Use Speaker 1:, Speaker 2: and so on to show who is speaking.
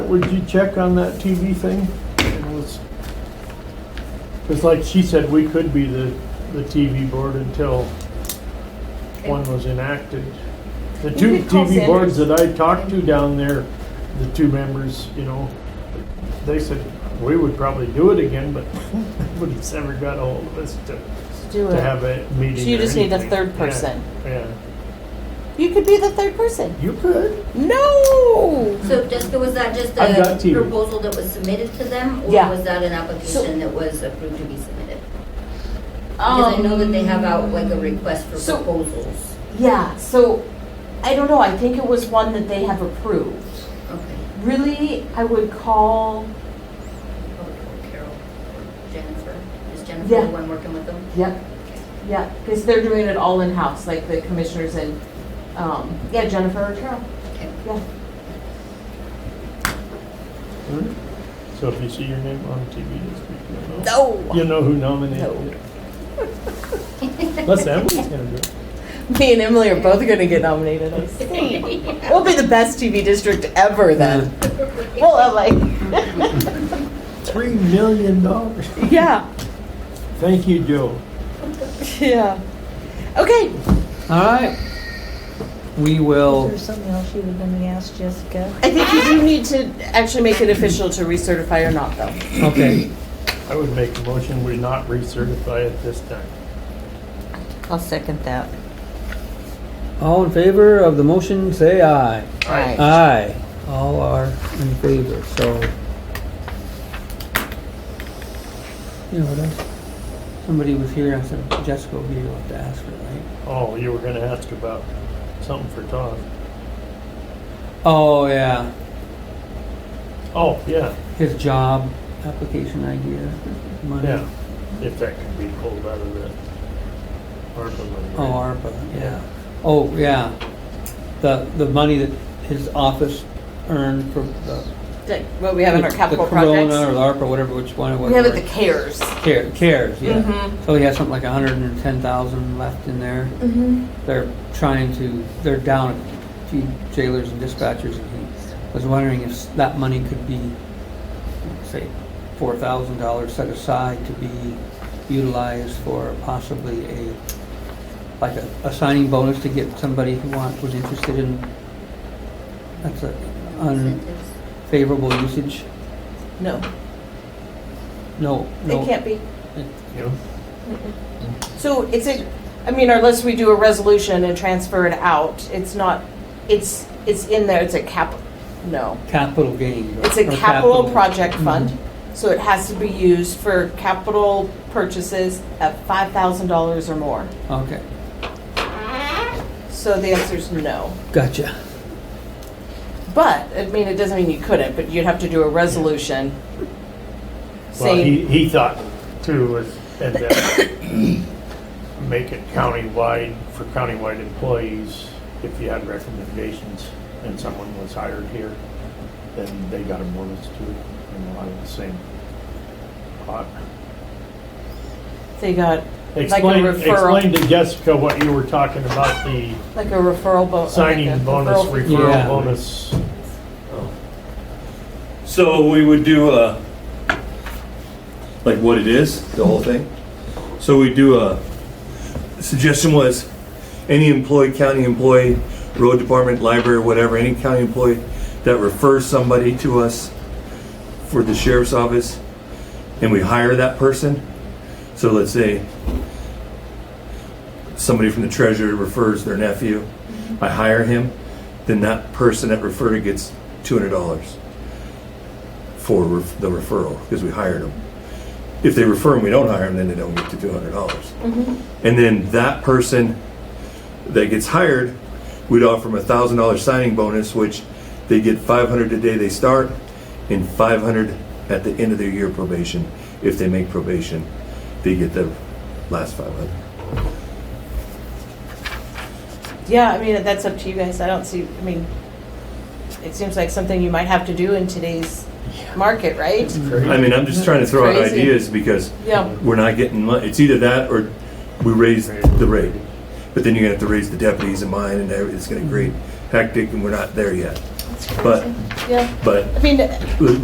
Speaker 1: would you check on that TV thing? And let's- Cause like she said, we could be the, the TV board until one was enacted. The
Speaker 2: You
Speaker 1: two
Speaker 2: could call
Speaker 1: TV boards
Speaker 2: Sanders.
Speaker 1: that I talked to down there, the two members, you know, they said, we would probably do it again, but nobody's ever got a hold of us to,
Speaker 2: Do
Speaker 1: to
Speaker 2: it.
Speaker 1: have a meeting
Speaker 2: So you
Speaker 1: or
Speaker 2: just need a
Speaker 1: anything.
Speaker 2: third
Speaker 1: Yeah,
Speaker 2: person.
Speaker 1: Yeah,
Speaker 2: You could be the third person.
Speaker 1: you could.
Speaker 2: No.
Speaker 3: So Jessica, was that just
Speaker 1: I've got
Speaker 3: a
Speaker 1: TV.
Speaker 3: proposal that was submitted to them?
Speaker 2: Yeah.
Speaker 3: Or was that an application that was approved to be submitted? Because I know that they have out like a request for
Speaker 2: Um, so-
Speaker 3: proposals.
Speaker 2: Yeah. So I don't know. I think it was one that they have approved.
Speaker 3: Okay.
Speaker 2: Really, I would call.
Speaker 3: Oh, Carol, Jennifer, is Jennifer
Speaker 2: Yeah.
Speaker 3: the one working with them?
Speaker 2: Yep. Yeah, because they're doing it all in house, like the commissioners and um, yeah, Jennifer or Carol.
Speaker 3: Okay.
Speaker 2: Yeah.
Speaker 1: Mm-hmm. So if you see your name on TV this week, you'll know.
Speaker 2: No.
Speaker 1: You know who nominated
Speaker 2: No.
Speaker 1: you. Unless Emily's gonna do it.
Speaker 2: Me and Emily are both going to get nominated. I think. We'll be the best TV district ever then. well, Emily.
Speaker 1: Three million dollars.
Speaker 2: yeah.
Speaker 1: Thank you, Joe.
Speaker 2: Yeah. Okay.
Speaker 4: All right. We
Speaker 5: Is
Speaker 4: will,
Speaker 5: there something else you were going to ask Jessica?
Speaker 2: I think you do need to actually make it official to recertify or not, though.
Speaker 4: okay.
Speaker 1: I would make a motion, we not recertify it this time.
Speaker 5: I'll second that.
Speaker 4: All in favor of the motion, say aye.
Speaker 5: Uh,
Speaker 2: Aye.
Speaker 4: Aye. All are in favor, so. You know, that's, somebody was here, I said, Jessica will be able to ask her, right?
Speaker 1: Oh, you were gonna ask about something for Todd.
Speaker 4: Oh, yeah,
Speaker 1: Oh, yeah,
Speaker 4: his job application idea, money.
Speaker 1: yeah, if that could be pulled out of the ARPA money.
Speaker 4: Oh,
Speaker 1: right?
Speaker 4: ARPA, yeah. Oh, yeah. The, the money that his office earned for the.
Speaker 2: Like what we have in our
Speaker 4: the
Speaker 2: capital
Speaker 4: Corona or
Speaker 2: projects.
Speaker 4: the ARPA, whatever, which one it was.
Speaker 2: We have it the
Speaker 4: right?
Speaker 2: cares.
Speaker 4: Care- Cares, yeah.
Speaker 2: Mhm.
Speaker 4: So he has something like a hundred and ten thousand left in there. They're trying to, they're down a few jailers and dispatchers, and he was wondering if that money could be, say, four thousand dollars set aside to be utilized for possibly a, like a, a signing bonus to get somebody who want, was interested in, that's a
Speaker 3: Incentives.
Speaker 4: unfavorable usage.
Speaker 2: No,
Speaker 4: No, no.
Speaker 2: it can't be.
Speaker 1: You
Speaker 2: So it's a, I mean, unless we do a resolution and transfer it out, it's not, it's, it's in there, it's a cap, no.
Speaker 4: Capital gain.
Speaker 2: It's a
Speaker 4: or
Speaker 2: capital project fund,
Speaker 4: Mhm.
Speaker 2: so it has to be used for capital purchases of five thousand dollars or more.
Speaker 4: Mm-hmm. Okay,
Speaker 2: So the answer is no.
Speaker 4: gotcha.
Speaker 2: But, I mean, it doesn't mean you couldn't, but you'd have to do a resolution
Speaker 1: Well, he,
Speaker 2: saying,
Speaker 1: he thought too was, and that make it countywide for countywide employees, if you had recommendations and someone was hired here, then they got a bonus too, you know, out of the same pot.
Speaker 2: they got
Speaker 1: Explain,
Speaker 2: referral.
Speaker 1: explain to Jessica what you were talking about, the
Speaker 2: like a referral bonus.
Speaker 1: signing bonus,
Speaker 4: Yeah.
Speaker 1: referral bonus.
Speaker 6: So we would do a, like what it is, the whole thing. So we do a, suggestion was any employee, county employee, road department, library, whatever, any county employee that refers somebody to us for the sheriff's office and we hire that person. So let's say somebody from the treasurer refers their nephew, I hire him, then that person that referred gets two hundred dollars for ref- the referral because we hired them. If they refer and we don't hire them, then they don't get to two hundred dollars.
Speaker 2: Mm-hmm.
Speaker 6: And then that person that gets hired, we'd offer them a thousand dollar signing bonus, which they get five hundred the day they start and five hundred at the end of their year probation. If they make probation, they get the last five hundred.
Speaker 2: Yeah, I mean, that's up to you guys. I don't see, I mean, it seems like something you might have to do in today's market, right?
Speaker 6: I mean, I'm just trying to throw out
Speaker 2: Crazy.
Speaker 6: ideas because
Speaker 2: Yeah.
Speaker 6: we're not getting money. It's either that or we raise the rate. But then you're gonna have to raise the deputies and mine and every- it's gonna be great hectic and we're not there yet. But,
Speaker 2: Yeah,
Speaker 6: but
Speaker 2: I mean,
Speaker 6: we-